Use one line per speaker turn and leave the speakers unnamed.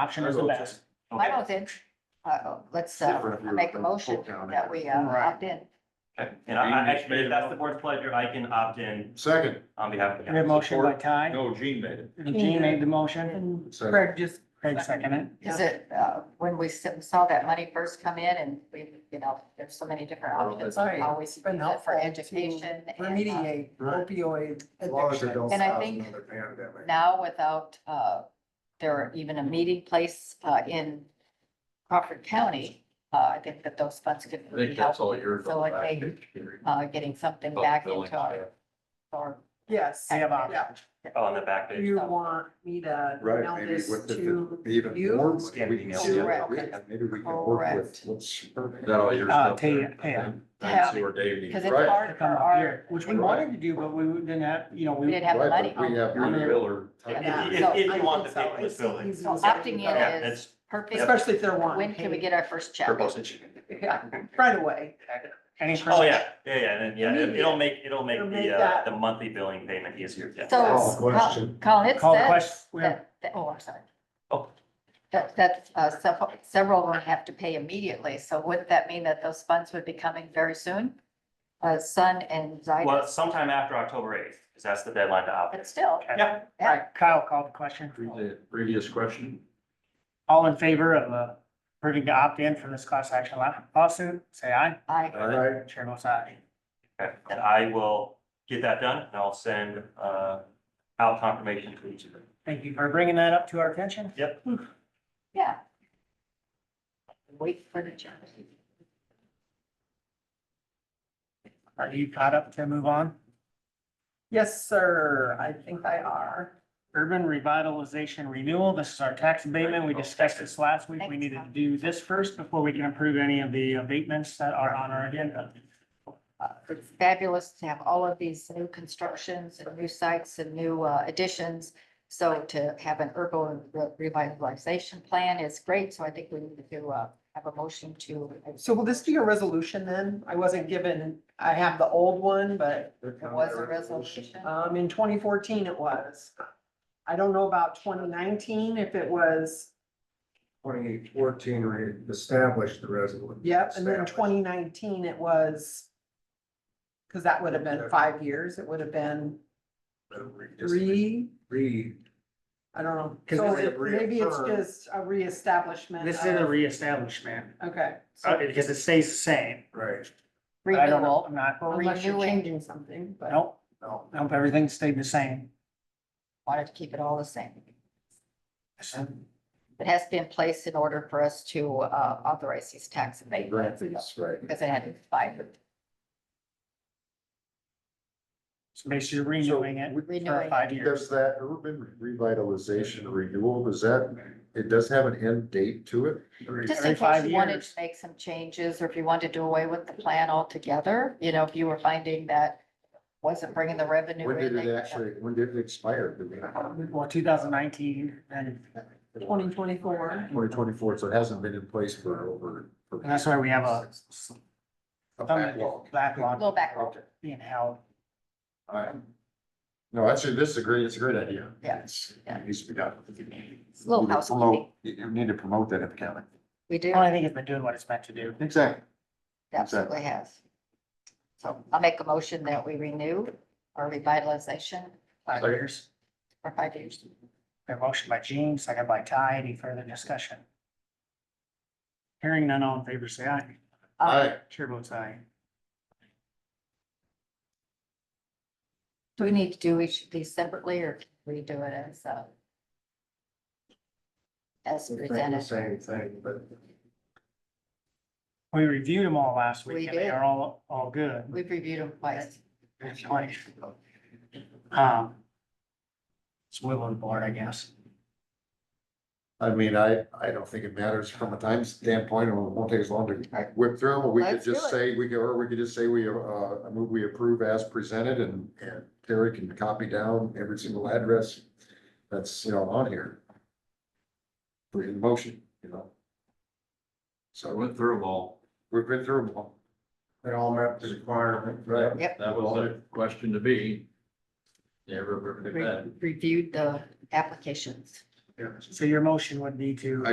option is the best.
I don't think, uh, let's, uh,
Different if you're
make a
from
motion
Polk County.
that we, uh,
Right.
opt in.
Okay, and I, I actually, if that's the board's pleasure, I can opt in
Second,
on behalf of the
We have a
council.
motion by Ty,
No, Gene made it.
Gene made the motion,
second,
just.
Craig seconded it.
Is it, uh, when we s- saw that money first come in and we, you know, there's so many different
Well,
options,
that's-
we always
been
use it for
helpful to
education. and, uh,
Remediate
Right.
opioid
as long as they
addiction.
don't
And I
cause
think
another pandemic.
Now without, uh, there are even a meeting place, uh, in Crawford County, uh, I think that those funds could
I
be
think that's all
helpful.
yours.
So like they, uh, getting something back into our,
Uh,
our
Yes.
We have
Yeah.
options.
Oh, on the back
Do
page.
You want me to email
Right, maybe
this
with,
to
if it even
you?
more,
Scan
we can
email.
see
Correct.
it, maybe we can work with
Correct.
what's.
That all yours?
Uh,
up
Tay-
there?
Tay, yeah.
I didn't see where Dave needed.
Because it's
Right.
hard
to
for
come up
our,
here, which we wanted to do, but we didn't have, you know,
we
we.
didn't have the money.
Right, but we have-
Rudy Miller.
Yeah.
If, if- if
I
you want the
think so.
paperless
It's
building.
easy.
So opting in
Yeah,
is
that's
perfect.
Especially if they're wanting.
When can we
paid.
get our first check?
for postage.
Yeah, right away.
Any further-
Oh, yeah, yeah, yeah, and then, yeah, it- it'll make, it'll make
It'll
the,
make
uh,
that-
the monthly billing payment easier, yeah.
So
Call
it's,
the question.
Colin, it
Call the
says
question. We have-
that, that- oh, I'm sorry.
Oh.
That, that, uh, sev- several of them have to pay immediately. So wouldn't that mean that those funds would be coming very soon? Uh, Sun and
Well,
Zidus,
sometime after October eighth, because that's the deadline to opt in.
but still.
Yeah.
Yeah.
Kyle called the question.
The Previous question.
All in favor of uh, approving to opt in for this class action law- lawsuit, say aye.
I,
uh,
All right,
Chair votes aye.
Okay, And I will get that done, and I'll send, uh, out confirmation to each of them.
Thank you for bringing that up to our attention.
Yep.
yeah. Wait for the check.
Are you caught up to move on?
Yes, sir. I think I are.
Urban revitalization renewal. This is our tax abatement. We discussed this last week. We needed to do this first before we can approve any of the abatements that are on our agenda.
Uh, It's fabulous to have all of these new constructions and new sites and new uh, additions. So to have an urban revitalization plan is great. So I think we need to uh, have a motion to.
So will this be a resolution then? I wasn't given, I have the old one, but
they're
It
coming
was a
there.
resolution.
Uh,
um, in twenty fourteen it was. I don't know about twenty nineteen if it was,
Twenty fourteen, we established the resolution.
yep, and then
Established.
twenty nineteen it was. Cause that would have been five years. It would have been
Then we just
three,
Re,
I don't know.
'Cause
So
this
is
it- maybe it's
reaffirmed.
just a reestablishment.
This is a
of-
reestablishment,
Okay.
uh,
so-
because it stays the same.
right,
But I don't know,
Renewal.
I'm not,
Unless you're
renewing-
changing something, but.
nope,
no,
nope, everything stayed the same.
Wanted to keep it all the same. It has to be in place in order for us to uh, authorize these tax
grant
abatements
fees, right.
because it had expired.
So basically renewing it
So,
for
Renewing.
five years.
Does that urban revitalization renewal, does that, it does have an end date to it?
Just
every
in
five
case you wanted to
years.
make some changes or if you wanted to do away with the plan altogether, you know, if you were finding that wasn't bringing the revenue.
When did
in,
it
they-
actually, when did it expire?
Well, two thousand nineteen, and
Twenty twenty-four.
Twenty twenty-four, so it hasn't been in place for over. for-
that's why we have a
A backlog.
backlog
Little backlog.
Okay,
being held.
all right. No, actually, this is a great, it's a great idea.
Yeah.
It's-
Yeah.
It needs to be done.
It's a little
We need to
housekeeping.
promote- You you need to promote that at the county.
We do,
Well, I think it's been doing what it's meant to do.
Exactly.
absolutely has. So I'll make a motion that we renew our revitalization
Five
Second.
years.
for five years.
A motion by Gene, second by Ty. Any further discussion? Hearing none, all in favor, say aye.
All
Um,
right,
Chair votes aye.
Do we need to do each of these separately or can we do it as, uh, as presented?
same thing, but
We reviewed them all last week
We
and they
did.
are all, all good.
We've reviewed them twice.
If you like. Um. It's will on board, I guess.
I mean, I, I don't think it matters from a time standpoint, or it won't take as long to whip through, them. we could
Let's do
just
it.
say, we could, or we could just say we, uh, I move we approve as presented and, and Terry can copy down every single address that's, you know, on here. For in motion, you know.
I
So
went through them all.
we've been through them all.
They all met the requirement.
Right.
That was the question to be. Never heard of
Re-
that.
Reviewed the applications.
So your motion would be to.